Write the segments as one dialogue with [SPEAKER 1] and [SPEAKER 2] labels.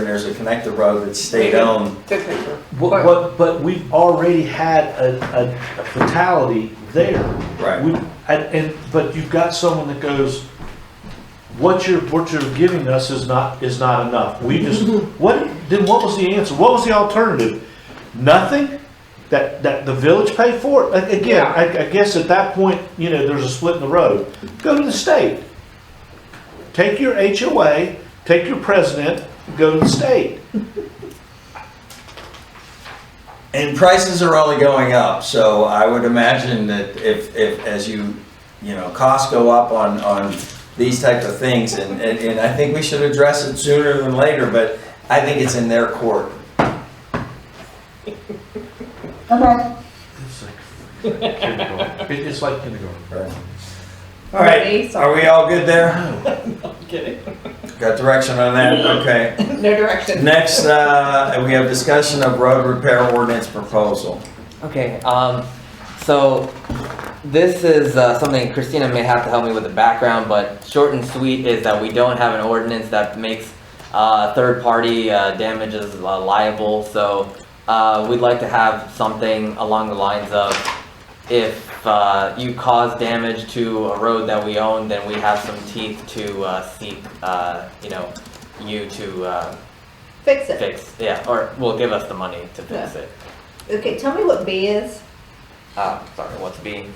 [SPEAKER 1] and there's a connector road that's state-owned.
[SPEAKER 2] Good picture.
[SPEAKER 3] But, but, but we've already had a, a a fatality there.
[SPEAKER 1] Right.
[SPEAKER 3] We, and, and, but you've got someone that goes, what you're, what you're giving us is not, is not enough. We just, what, then what was the answer? What was the alternative? Nothing? That, that the village paid for it? A- Again, I, I guess at that point, you know, there's a split in the road. Go to the state. Take your HOA, take your president, go to the state.
[SPEAKER 1] And prices are only going up, so I would imagine that if, if, as you, you know, costs go up on, on these types of things, and, and, and I think we should address it sooner than later, but I think it's in their court.
[SPEAKER 4] Okay,
[SPEAKER 3] It's like kindergarten. It- It's like kindergarten.
[SPEAKER 1] All right, are we all good there?
[SPEAKER 2] Kidding.
[SPEAKER 1] Got direction on that, okay.
[SPEAKER 2] No direction.
[SPEAKER 1] Next, uh, we have discussion of road repair ordinance proposal.
[SPEAKER 5] Okay, um, so this is uh, something Christina may have to help me with the background, but short and sweet is that we don't have an ordinance that makes uh, third-party uh, damages uh, liable, so uh, we'd like to have something along the lines of if uh, you cause damage to a road that we own, then we have some teeth to uh, seek, uh, you know, you to uh,
[SPEAKER 6] Fix it.
[SPEAKER 5] fix, yeah, or will give us the money to fix it.
[SPEAKER 6] Okay, tell me what B is.
[SPEAKER 5] Ah, sorry, what's being?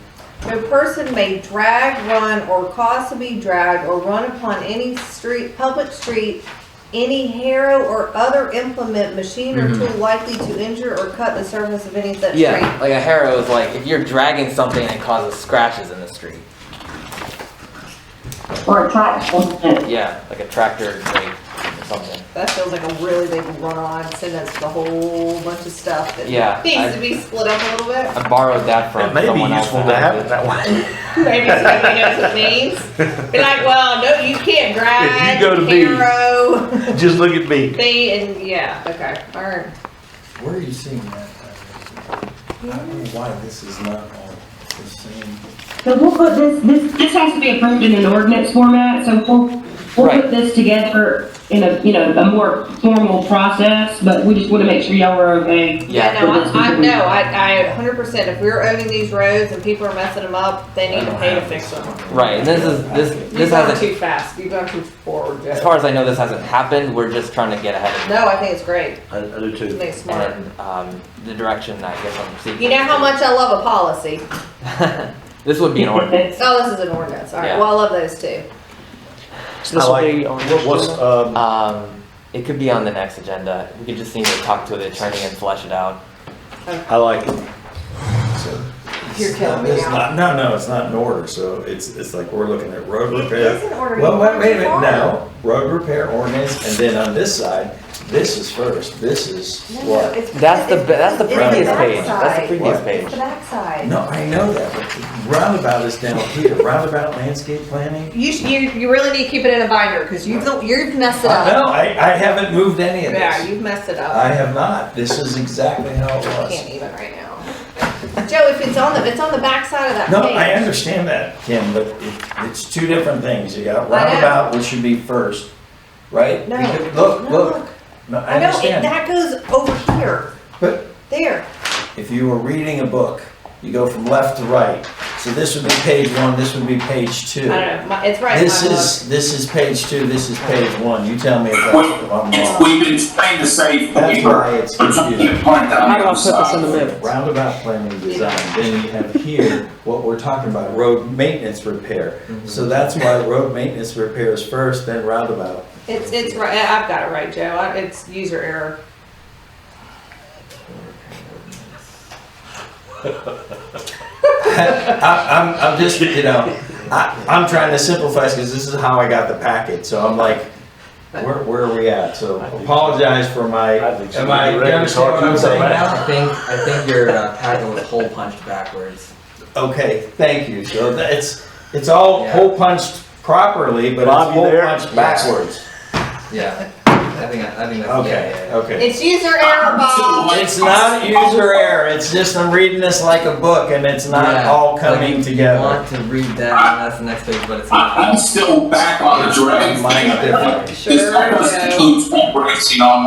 [SPEAKER 6] No person may drag, run, or cause to be dragged or run upon any street, public street, any harrow or other implement, machine or
[SPEAKER 5] Mhm.
[SPEAKER 6] tool likely to injure or cut the surface of any such street.
[SPEAKER 5] Yeah, like a harrow is like if you're dragging something and it causes scratches in the street.
[SPEAKER 4] or a tractor.
[SPEAKER 5] Yeah, like a tractor brake or something.
[SPEAKER 6] That feels like a really big run-on sentence, the whole bunch of stuff that
[SPEAKER 5] Yeah,
[SPEAKER 6] needs
[SPEAKER 5] I-
[SPEAKER 6] to be split up a little bit.
[SPEAKER 5] I borrowed that from
[SPEAKER 3] It may be
[SPEAKER 5] someone else.
[SPEAKER 3] useful
[SPEAKER 5] that
[SPEAKER 3] to
[SPEAKER 5] I
[SPEAKER 3] have
[SPEAKER 5] did.
[SPEAKER 3] it that way.
[SPEAKER 6] Maybe somebody knows what it means. Be like, well, no, you can't drag,
[SPEAKER 3] go to B.
[SPEAKER 6] harrow,
[SPEAKER 3] Just look at me.
[SPEAKER 6] B, and yeah, okay, all right.
[SPEAKER 1] Where are you seeing that? I don't know why this is not on the same.
[SPEAKER 4] So we'll put this, this, this has to be approved in an ordinance format, so we'll, we'll
[SPEAKER 5] Right.
[SPEAKER 4] put this together in a, you know, a more formal process, but we just wanna make sure y'all are okay.
[SPEAKER 5] Yeah.
[SPEAKER 6] Yeah, no, I, I know, I, I, hundred percent, if we're owning these roads and people are messing them up, they need to pay to fix them.
[SPEAKER 5] Right, and this is this
[SPEAKER 2] You've
[SPEAKER 5] this
[SPEAKER 2] gone
[SPEAKER 5] hasn't.
[SPEAKER 2] too fast. You've gone too forward,
[SPEAKER 5] As
[SPEAKER 2] Jeff.
[SPEAKER 5] far as I know, this hasn't happened. We're just trying to get ahead of
[SPEAKER 6] No, I think it's great,
[SPEAKER 3] I, I do
[SPEAKER 6] I think
[SPEAKER 3] too.
[SPEAKER 6] it's
[SPEAKER 5] it
[SPEAKER 6] smart.
[SPEAKER 5] and um, the direction I guess I'm seeking.
[SPEAKER 6] You know how much I love a policy,
[SPEAKER 5] this would be an order.
[SPEAKER 6] oh, this is an ordinance, alright,
[SPEAKER 5] Yeah.
[SPEAKER 6] well, I love those too.
[SPEAKER 3] I like, what- what's, um,
[SPEAKER 5] Um, it could be on the next agenda. We could just need to talk to the attorney and flesh it out.
[SPEAKER 3] I like it.
[SPEAKER 1] So-
[SPEAKER 2] You're killing me
[SPEAKER 1] It's
[SPEAKER 2] now.
[SPEAKER 1] not- No, no, it's not in order, so it's, it's like we're looking at road
[SPEAKER 6] It
[SPEAKER 1] repair.
[SPEAKER 6] is in order,
[SPEAKER 1] Well,
[SPEAKER 6] you
[SPEAKER 1] wait, wait a
[SPEAKER 6] are.
[SPEAKER 1] minute, no, road repair ordinance, and then on this side, this is first, this is what?
[SPEAKER 5] That's the that's the
[SPEAKER 6] It's
[SPEAKER 5] previous page. That's the
[SPEAKER 6] backside.
[SPEAKER 5] previous
[SPEAKER 1] What?
[SPEAKER 5] page.
[SPEAKER 6] It's the backside.
[SPEAKER 1] No, I know that, but roundabout is down here, roundabout landscape planning.
[SPEAKER 6] You, sh- you, you really need to keep it in a binder, cause you've, you've messed it
[SPEAKER 1] Uh,
[SPEAKER 6] up.
[SPEAKER 1] No, I, I haven't moved any of
[SPEAKER 6] Yeah,
[SPEAKER 1] this.
[SPEAKER 6] you've messed it up.
[SPEAKER 1] I have not, this is exactly how it was.
[SPEAKER 6] Can't even right now. Joe, if it's on the, it's on the backside of that
[SPEAKER 1] No,
[SPEAKER 6] page.
[SPEAKER 1] I understand that, Kim, but it, it's two different things, you got
[SPEAKER 6] know.
[SPEAKER 1] roundabout, which should be first, right?
[SPEAKER 6] No,
[SPEAKER 1] Because- Look,
[SPEAKER 6] no,
[SPEAKER 1] look, no, I
[SPEAKER 6] know, it-
[SPEAKER 1] understand,
[SPEAKER 6] that goes over here,
[SPEAKER 1] but
[SPEAKER 6] there.
[SPEAKER 1] If you were reading a book, you go from left to right. So this would be page one, this would be page
[SPEAKER 6] I
[SPEAKER 1] two.
[SPEAKER 6] don't know, my- it's right in
[SPEAKER 1] This
[SPEAKER 6] my book.
[SPEAKER 1] is, this is page two, this is page one. You tell me if that's, if I'm wrong.
[SPEAKER 7] We've been trying to save
[SPEAKER 1] That's
[SPEAKER 7] paper.
[SPEAKER 1] why it's
[SPEAKER 7] But something
[SPEAKER 1] confusing.
[SPEAKER 7] point that I'm sorry.
[SPEAKER 1] Roundabout planning design, then you have here what we're talking about, road maintenance repair. So that's why road maintenance repair is first, then roundabout.
[SPEAKER 6] It's, it's right, I- I've got it right, Joe, I- it's user error.
[SPEAKER 1] I, I'm, I'm just, you know, I, I'm trying to simplify because this is how I got the packet, so I'm like, where, where are we at? So apologize for my,
[SPEAKER 3] I think so.
[SPEAKER 1] am I, you understand what I'm saying now?
[SPEAKER 5] I think I think your uh, packet was hole punched backwards.
[SPEAKER 1] Okay, thank you, so that- it's, it's all hole punched properly, but
[SPEAKER 3] Bob,
[SPEAKER 1] it's
[SPEAKER 3] you
[SPEAKER 1] hole
[SPEAKER 3] there?
[SPEAKER 1] punched backwards.
[SPEAKER 5] Yeah. think, I think that's, yeah, yeah,
[SPEAKER 1] Okay,
[SPEAKER 5] yeah.
[SPEAKER 1] okay.
[SPEAKER 6] It's user error, Bob.
[SPEAKER 1] It's not user error, it's just I'm reading this like a book and it's not
[SPEAKER 5] Yeah,
[SPEAKER 1] all
[SPEAKER 5] like,
[SPEAKER 1] coming
[SPEAKER 5] you
[SPEAKER 1] together.
[SPEAKER 5] want to read that, and that's the next page, but it's not.
[SPEAKER 7] I, I'm still back on the drag.
[SPEAKER 1] Mine's
[SPEAKER 7] thing.
[SPEAKER 1] different.
[SPEAKER 7] This almost includes embracing online.